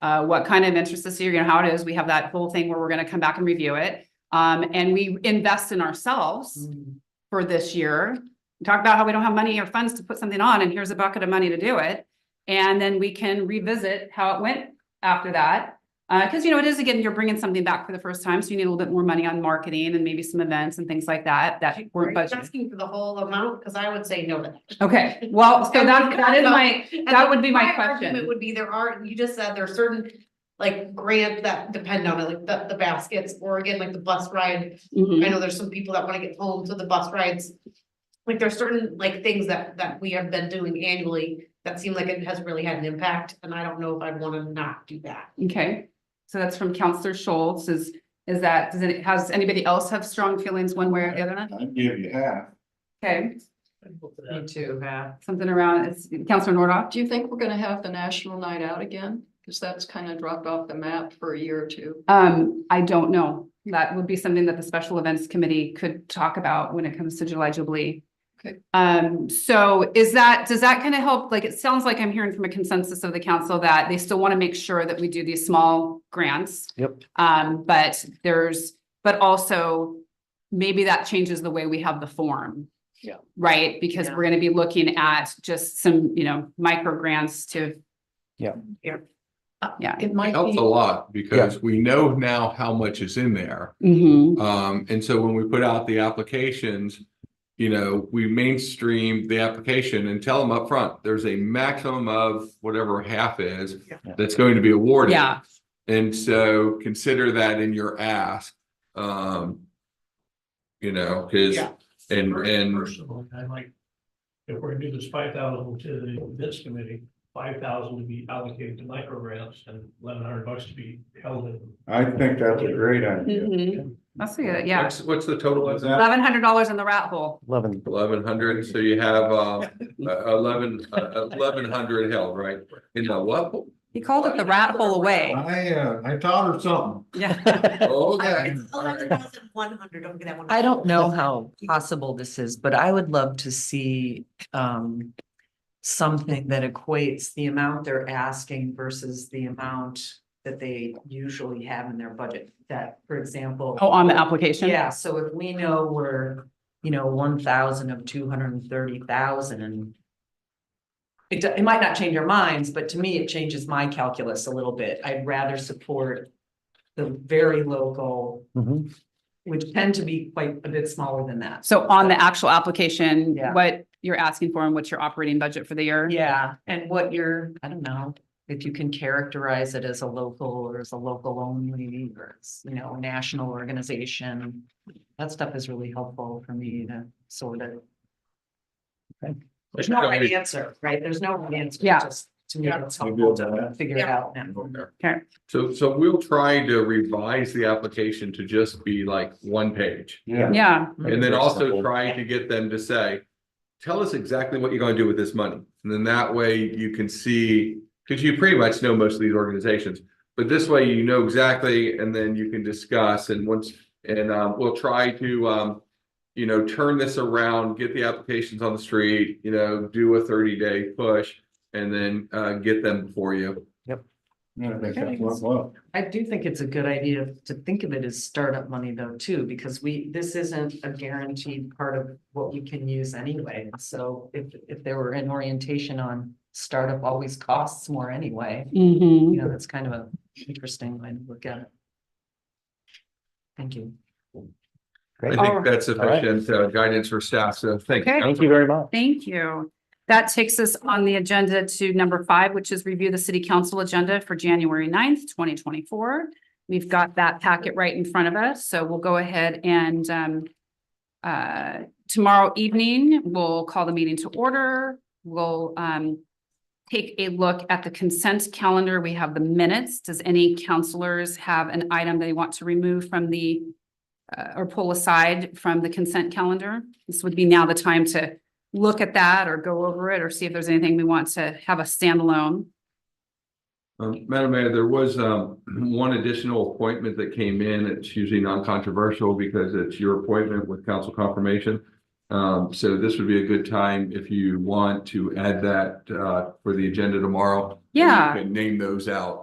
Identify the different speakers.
Speaker 1: uh, what kind of interest this year, you know, how it is. We have that whole thing where we're gonna come back and review it. Um, and we invest in ourselves
Speaker 2: Mm.
Speaker 1: for this year. Talk about how we don't have money or funds to put something on, and here's a bucket of money to do it. And then we can revisit how it went after that. Uh, cause you know, it is again, you're bringing something back for the first time, so you need a little bit more money on marketing and maybe some events and things like that, that
Speaker 2: Are
Speaker 1: weren't
Speaker 2: you
Speaker 1: budgeted.
Speaker 2: Asking for the whole amount, because I would say no to that.
Speaker 1: Okay, well, so that, that is my,
Speaker 2: And
Speaker 1: that would be my
Speaker 2: It
Speaker 1: question.
Speaker 2: would be there are, you just said there are certain, like, grants that depend on it, like the, the baskets, or again, like the bus ride.
Speaker 1: Mhm.
Speaker 2: I know there's some people that wanna get home, so the bus rides. Like, there's certain, like, things that, that we have been doing annually that seem like it has really had an impact, and I don't know if I'd wanna not do that.
Speaker 1: Okay, so that's from Counselor Schultz is, is that, does it, has anybody else have strong feelings one way or the other?
Speaker 3: I'd give you half.
Speaker 1: Okay,
Speaker 4: Me too, yeah.
Speaker 1: something around, it's Counselor Nordoff,
Speaker 4: Do you think we're gonna have the national night out again? Cause that's kind of dropped off the map for a year or two.
Speaker 1: um, I don't know. That would be something that the Special Events Committee could talk about when it comes to July Jubilee.
Speaker 4: Okay.
Speaker 1: Um, so is that, does that kind of help? Like, it sounds like I'm hearing from a consensus of the council that they still want to make sure that we do these small grants.
Speaker 5: Yep.
Speaker 1: Um, but there's, but also maybe that changes the way we have the form.
Speaker 5: Yeah.
Speaker 1: Right? Because we're gonna be looking at just some, you know, micro grants to, yeah.
Speaker 4: It might
Speaker 3: Helps a
Speaker 4: be,
Speaker 3: lot because we know now how much is in there.
Speaker 1: Mhm.
Speaker 3: Um, and so when we put out the applications, you know, we mainstream the application and tell them upfront, there's a maximum of whatever half is
Speaker 2: Yeah.
Speaker 3: that's going to be awarded.
Speaker 1: yeah,
Speaker 3: And so consider that in your ask. Um, you know, cause,
Speaker 2: Yeah.
Speaker 3: and, and
Speaker 6: Personally, I like, if we're gonna do this five thousand to the events committee, five thousand to be allocated to micro grants and eleven hundred bucks to be held in.
Speaker 5: I think
Speaker 6: that's a
Speaker 5: great idea.
Speaker 1: Mhm. that's a good, yeah.
Speaker 3: what's, what's the total of that?
Speaker 1: Eleven hundred dollars in the rat hole.
Speaker 5: Eleven,
Speaker 3: Eleven hundred, so you have, um, eleven, eleven hundred held, right? In the what?
Speaker 1: He called it the rat hole away.
Speaker 7: I, uh, I taught her something.
Speaker 1: Yeah.
Speaker 3: Okay.
Speaker 2: thousand one hundred, don't get that one.
Speaker 8: I don't know how possible this is, but I would love to see um. Something that equates the amount they're asking versus the amount that they usually have in their budget. That, for example.
Speaker 1: Oh, on the application?
Speaker 8: Yeah, so if we know we're, you know, one thousand of two hundred and thirty thousand and. It, do- it might not change our minds, but to me, it changes my calculus a little bit. I'd rather support the very local,
Speaker 5: Mhm.
Speaker 8: which tend to be quite a bit smaller than that.
Speaker 1: So on the actual application,
Speaker 8: Yeah.
Speaker 1: what you're asking for and what's your operating budget for the year?
Speaker 8: Yeah, and what you're, I don't know, if you can characterize it as a local or as a local only, or it's, you know, a national organization. That stuff is really helpful for me to sort of, there's no right answer, right? There's no right answer.
Speaker 1: Yeah.
Speaker 8: just To me,
Speaker 5: Yeah.
Speaker 8: it's helpful to figure it out now.
Speaker 1: Okay.
Speaker 3: So, so we'll try to revise the application to just be like one page.
Speaker 5: yeah.
Speaker 1: Yeah,
Speaker 3: And then also
Speaker 5: Reasonable.
Speaker 3: try to get them to say, tell us exactly what you're gonna do with this money. And then that way you can see, because you pretty much know most of these organizations. But this way you know exactly, and then you can discuss and once, and, um, we'll try to, um, you know, turn this around, get the applications on the street, you know, do a thirty day push and then, uh, get them before you.
Speaker 5: Yeah, I think that's what- well,
Speaker 8: I do think it's a good idea to think of it as startup money though too, because we, this isn't a guaranteed part of what we can use anyway. So if, if there were an orientation on startup always costs more anyway,
Speaker 1: hmm
Speaker 8: you know, that's kind of a interesting way to look at it. Thank you.
Speaker 3: I
Speaker 5: Great.
Speaker 1: All
Speaker 3: think
Speaker 1: right.
Speaker 3: that's
Speaker 5: right.
Speaker 3: sufficient uh, guidance for staff, so thank you.
Speaker 1: Okay.
Speaker 5: Thank you very much.
Speaker 1: Thank you. That takes us on the agenda to number five, which is review the city council agenda for January 9th, twenty twenty-four. We've got that packet right in front of us, so we'll go ahead and um, uh, tomorrow evening, we'll call the meeting to order. We'll um, take a look at the consent calendar. We have the minutes. Does any counselors have an item they want to remove from the uh, or pull aside from the consent calendar? This would be now the time to look at that or go over it or see if there's anything we want to have a standalone.
Speaker 3: Um, Madam Mayor, there was, um, one additional appointment that came in. It's usually non-controversial because it's your appointment with council confirmation. Um, so this would be a good time if you want to add that, uh, for the agenda tomorrow.
Speaker 1: Yeah.
Speaker 3: You can Name those out.